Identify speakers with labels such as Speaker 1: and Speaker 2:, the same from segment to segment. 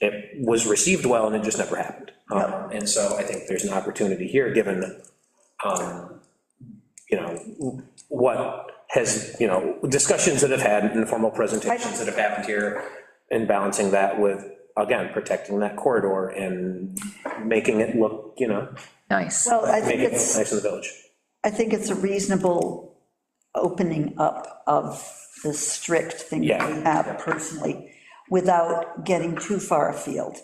Speaker 1: it was received well, and it just never happened. Um, And so I think there's an opportunity here, given, um, you know, what has, you know, discussions that have had, informal presentations that have happened here, and balancing that with, again, protecting that corridor and making it look, you know,
Speaker 2: Nice.
Speaker 3: Well, I think
Speaker 1: making it look
Speaker 3: it's,
Speaker 1: nice in the village.
Speaker 3: I think it's a reasonable opening up of the strict thing that we
Speaker 1: Yeah.
Speaker 3: have personally, without getting too far afield.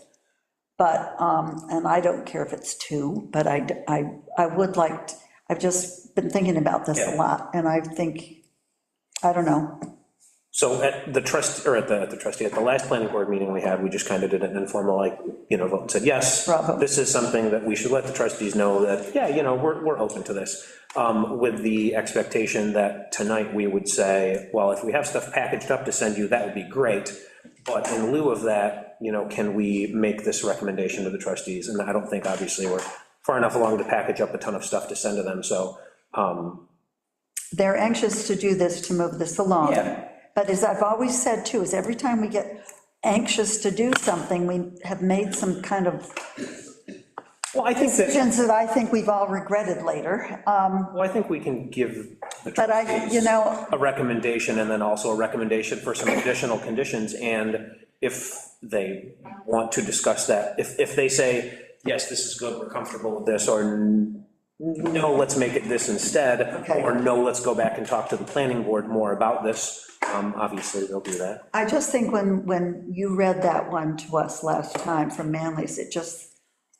Speaker 3: But, um, and I don't care if it's two, but I, d- I- I would like, t- I've just been thinking about this a
Speaker 1: Yeah.
Speaker 3: lot, and I think, I don't know,
Speaker 1: So at the trust, or at the, at the trustee, at the last planning board meeting we had, we just kind of did an informal, like, you know, vote and said, yes,
Speaker 3: Bravo.
Speaker 1: this is something that we should let the trustees know that, yeah, you know, we're, we're open to this. um, With the expectation that tonight we would say, well, if we have stuff packaged up to send you, that would be great. But in lieu of that, you know, can we make this recommendation to the trustees? And I don't think, obviously, we're far enough along to package up a ton of stuff to send to them, so, um,
Speaker 3: they're anxious to do this, to move this along.
Speaker 1: Yeah.
Speaker 3: But as I've always said too, is every time we get anxious to do something, we have made some kind of
Speaker 1: well, I think that,
Speaker 3: decisions that I think we've all regretted later. Um,
Speaker 1: well, I think we can give the
Speaker 3: But I, you know,
Speaker 1: a recommendation and then also a recommendation for some additional conditions, and if they want to discuss that, if, if they say, yes, this is good, we're comfortable with this, or n- no, let's make it this instead,
Speaker 3: Okay.
Speaker 1: or no, let's go back and talk to the planning board more about this, um, obviously, they'll do that.
Speaker 3: I just think when, when you read that one to us last time from Manly's, it just,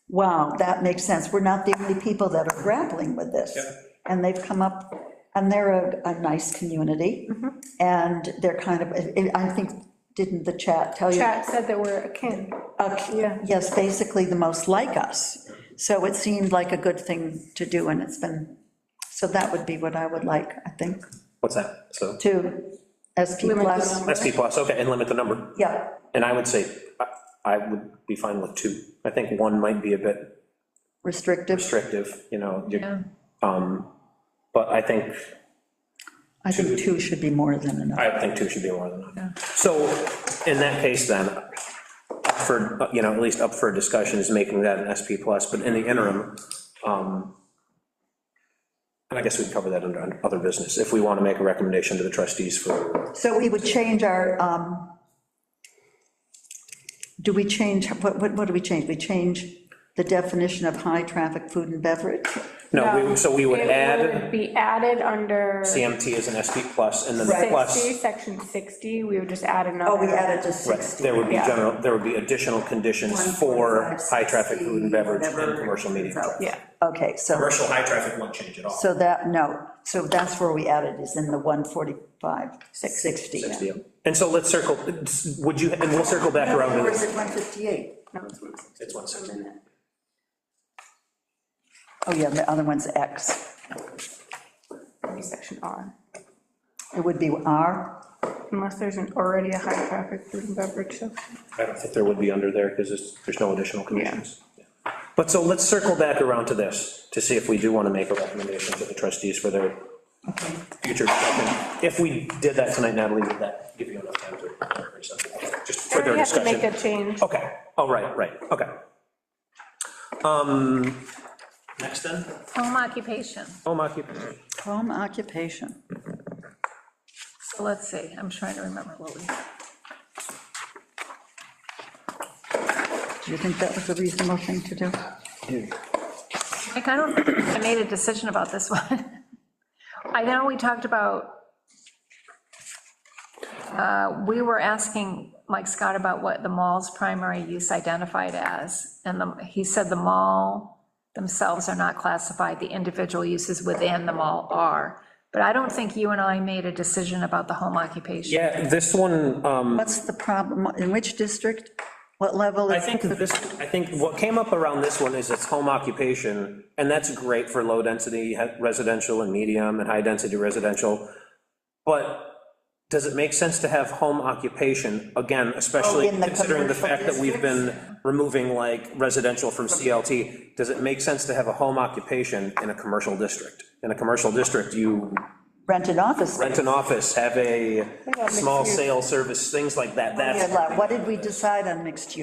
Speaker 3: wow, that makes sense. We're not the only people that are grappling with this. And they've come up, and they're a, a nice community,
Speaker 4: Mm-hmm.
Speaker 3: and they're kind of, I- I think, didn't the chat tell you?
Speaker 4: Chat said that we're akin.
Speaker 3: a-
Speaker 4: Yeah.
Speaker 3: Yes, basically the most like us. So it seemed like a good thing to do, and it's been, so that would be what I would like, I think.
Speaker 1: What's that? So,
Speaker 3: to SP
Speaker 4: Limit the
Speaker 3: plus,
Speaker 4: number.
Speaker 1: SP plus, okay, and limit the number,
Speaker 3: yeah,
Speaker 1: and I would say, I- I would be fine with two. I think one might be a bit
Speaker 3: restrictive.
Speaker 1: restrictive, you know, you-
Speaker 2: Yeah.
Speaker 1: um, but I think
Speaker 3: I think two should be more than enough.
Speaker 1: I think two should be more than that. So, in that case then, for, you know, at least up for discussion is making that an SP plus, but in the interim, um, and I guess we'd cover that under under other business, if we want to make a recommendation to the trustees for,
Speaker 3: So we would change our, um, do we change, what, what what do we change? We change the definition of high-traffic food and beverage?
Speaker 1: no, we- so we would
Speaker 4: It
Speaker 1: add
Speaker 4: would Be added under
Speaker 1: CMT as an SP plus, and then the plus,
Speaker 4: 60, section 60, we would just add another.
Speaker 3: Oh, we added to 60.
Speaker 1: there would be
Speaker 4: Yeah.
Speaker 1: general, there would be additional conditions for high-traffic food and beverage and commercial meeting.
Speaker 4: Yeah,
Speaker 3: Okay, so,
Speaker 1: Commercial high-traffic won't change at all.
Speaker 3: so that, no, so that's where we added, is in the 145, 60. yeah.
Speaker 1: Yeah. And so let's circle, would you, and we'll circle back around to
Speaker 3: Or
Speaker 1: this.
Speaker 3: is it 158?
Speaker 4: no, it's 160.
Speaker 1: It's 160.
Speaker 3: Oh, yeah, the other one's X.
Speaker 4: It'd be Section R,
Speaker 3: It would be R?
Speaker 4: unless there's an, already a high traffic food and beverage section.
Speaker 1: I don't think there would be under there, because there's, there's no additional conditions. But so let's circle back around to this, to see if we do want to make a recommendation to the trustees for their future. discussion. If we did that tonight, Natalie, would that give you enough time to, or something, just for their
Speaker 4: We have to make
Speaker 1: discussion?
Speaker 4: a change.
Speaker 1: Okay, all right, right, okay. Um, next then,
Speaker 2: Home occupation.
Speaker 1: home occupation.
Speaker 3: Home occupation.
Speaker 2: So let's see, I'm trying to remember what we,
Speaker 3: Do you think that was a reasonable thing to do?
Speaker 2: like, I don't, think I made a decision about this one. I know we talked about, uh, we were asking Mike Scott about what the mall's primary use identified as, and the- he said the mall themselves are not classified, the individual uses within the mall are. But I don't think you and I made a decision about the home occupation.
Speaker 1: Yeah, this one, um,
Speaker 3: What's the problem, in which district, what level?
Speaker 1: I
Speaker 3: is
Speaker 1: think
Speaker 3: the-
Speaker 1: this, I think what came up around this one is it's home occupation, and that's great for low-density residential and medium and high-density residential. But does it make sense to have home occupation, again, especially
Speaker 3: Oh, in the
Speaker 1: considering the
Speaker 3: commercial
Speaker 1: fact that we've been removing like residential from CLT? Does it make sense to have a home occupation in a commercial district? In a commercial district, you
Speaker 3: Rented office.
Speaker 1: rent an office, have a small sale service, things like that, that's.
Speaker 3: What did we decide on mixed use?